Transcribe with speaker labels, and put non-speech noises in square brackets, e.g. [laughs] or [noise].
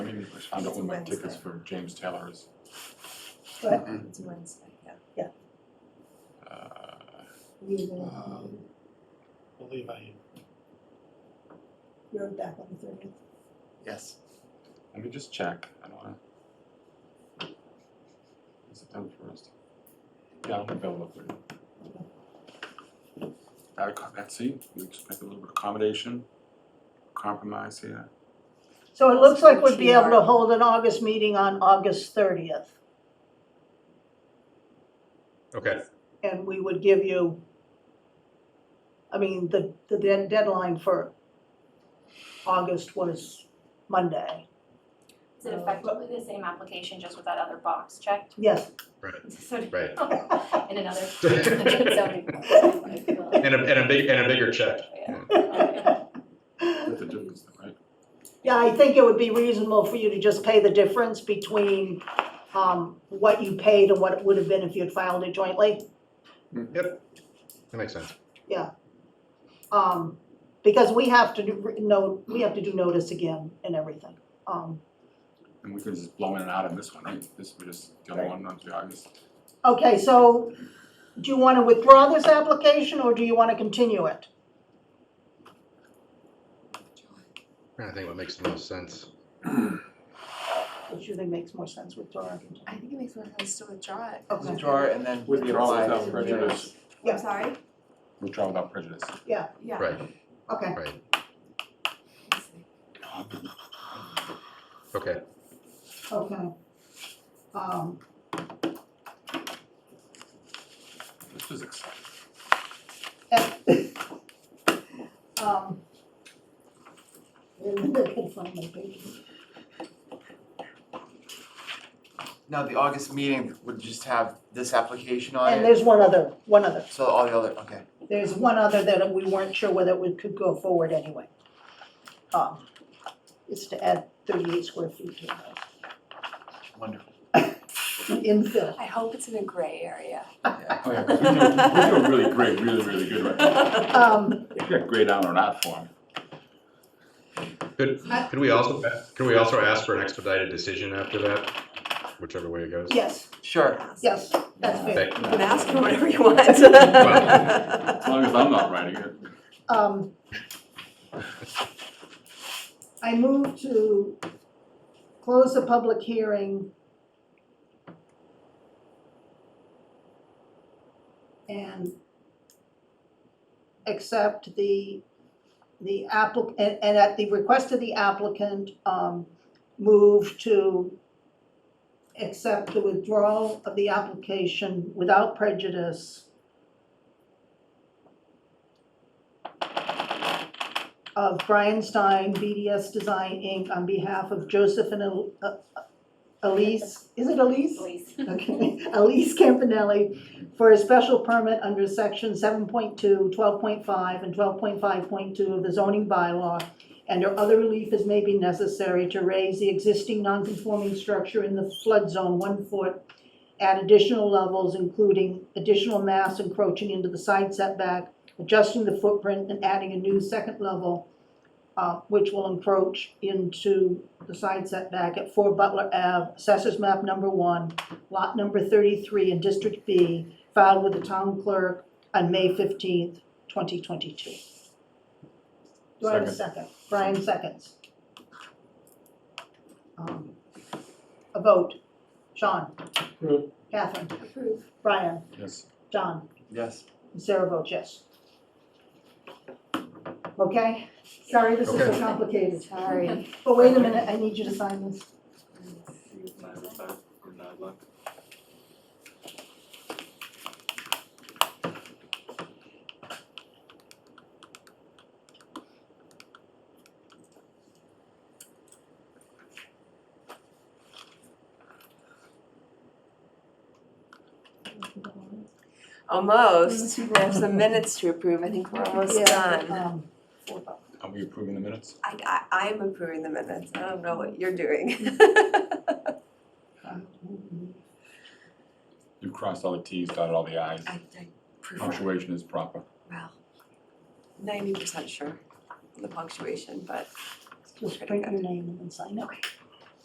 Speaker 1: I found out
Speaker 2: It's
Speaker 1: when my
Speaker 2: Wednesday.
Speaker 1: tickets for James Taylor is,
Speaker 2: But
Speaker 3: Mhm.
Speaker 2: it's Wednesday, yeah.
Speaker 1: uh,
Speaker 4: You will,
Speaker 3: Um, Believe I,
Speaker 4: you're back on the thirtieth.
Speaker 3: yes,
Speaker 1: let me just check, I don't wanna. Is it done first? Yeah, I'm available for That, co- that's see, we just make a little bit of accommodation, compromise here.
Speaker 5: So it looks like we'd be able to
Speaker 2: Sure.
Speaker 5: hold an August meeting on August thirtieth,
Speaker 6: Okay,
Speaker 5: and we would give you, I mean, the, the dead- deadline for August was Monday.
Speaker 7: Is it effectively the same application, just with that other box checked? [laughs]
Speaker 5: Yes,
Speaker 6: right.
Speaker 7: So- [laughs]
Speaker 6: Right.
Speaker 5: [laughs]
Speaker 7: In another. [laughs] zoning bylaw, if you will.
Speaker 6: And a, and a big, and a bigger check.
Speaker 7: Yeah.
Speaker 1: That's the difference, though, right?
Speaker 5: Yeah, I think it would be reasonable for you to just pay the difference between, um, what you paid and what it would have been if you had filed it jointly.
Speaker 6: That makes sense.
Speaker 5: Um, because we have to do, no, we have to do notice again and everything. Um,
Speaker 1: And we can just blow in and out of this one, right? This, we just, the other
Speaker 5: Right.
Speaker 1: one, on the August.
Speaker 5: okay, so do you wanna withdraw this application or do you wanna continue it?
Speaker 6: I think what makes the most sense.
Speaker 5: Which you think makes more sense, withdraw or continue?
Speaker 2: I think it makes more sense to withdraw it.
Speaker 5: Okay.
Speaker 3: withdraw it and then.
Speaker 1: With the all
Speaker 3: provide
Speaker 1: without
Speaker 3: the
Speaker 1: prejudice,
Speaker 5: Yeah.
Speaker 2: I'm sorry,
Speaker 1: withdraw without prejudice.
Speaker 2: yeah.
Speaker 6: Right,
Speaker 5: Okay,
Speaker 6: right.
Speaker 2: Let's see.
Speaker 6: Okay.
Speaker 5: okay. Um,
Speaker 1: This is [laughs] exciting.
Speaker 5: um. Remember, I couldn't find my paper.
Speaker 3: Now, the August meeting would just have this application on
Speaker 5: And
Speaker 3: it,
Speaker 5: there's one other, one other.
Speaker 3: so all the other, okay.
Speaker 5: There's one other that we weren't sure whether we could go forward anyway. Um, It's to add thirty-eight square feet to the house, [laughs]
Speaker 3: Wonderful.
Speaker 5: an infill.
Speaker 2: I hope it's in a gray area.
Speaker 3: Yeah.
Speaker 1: Oh, yeah, 'cause we're doing, we're doing really great, really, really good right now.
Speaker 5: Um,
Speaker 1: We got great on an art form.
Speaker 6: Could, could we also, could we also ask for an expedited decision after that? Whichever way it goes?
Speaker 5: yes,
Speaker 3: Sure.
Speaker 5: yes, that's fair.
Speaker 6: Thank-
Speaker 2: You can ask for whatever you
Speaker 6: Well.
Speaker 2: want.
Speaker 1: As long as I'm not writing it.
Speaker 5: Um, I move to close the public hearing and accept the, the applicant, and at the request of the applicant, um, move to accept the withdrawal of the application without prejudice of Brian Stein, BDS Design Inc., on behalf of Joseph and El- uh, uh, Elise, is it Elise?
Speaker 7: Please.
Speaker 5: Okay, Elise Campanelli for a special permit under section 7.2, 12.5, and twelve point five point two of the zoning bylaw and or other relief as may be necessary to raise the existing non-conforming structure in the flood zone one foot at additional levels, including additional mass encroaching into the side setback, adjusting the footprint and adding a new second level, uh, which will encroach into the side setback at four Butler Ave, assessors map number one, lot number thirty-three in District B, filed with the town clerk on May fifteenth, twenty twenty-two. Do I have a second? Brian seconds. Um, A vote. Sean?
Speaker 1: Approve.
Speaker 5: Catherine?
Speaker 2: Approve.
Speaker 5: Brian?
Speaker 1: Yes.
Speaker 5: John?
Speaker 3: Yes.
Speaker 5: And Sarah votes yes. Okay? Sorry, this is so
Speaker 6: Okay.
Speaker 5: complicated.
Speaker 2: Sorry.
Speaker 5: But wait a minute, I need you to sign this.
Speaker 2: [laughs] Almost, we have some minutes to approve, I think we're almost
Speaker 5: Yeah,
Speaker 2: done.
Speaker 5: um, four bucks.
Speaker 1: Are we approving the minutes?
Speaker 2: I, I, I'm approving the minutes, I don't know what you're doing. [laughs]
Speaker 1: You crossed all the Ts, dotted all the Is.
Speaker 2: I, I prefer,
Speaker 1: Punctuation is proper.
Speaker 2: well, ninety percent sure of the punctuation, but
Speaker 5: Just print your name and then sign it.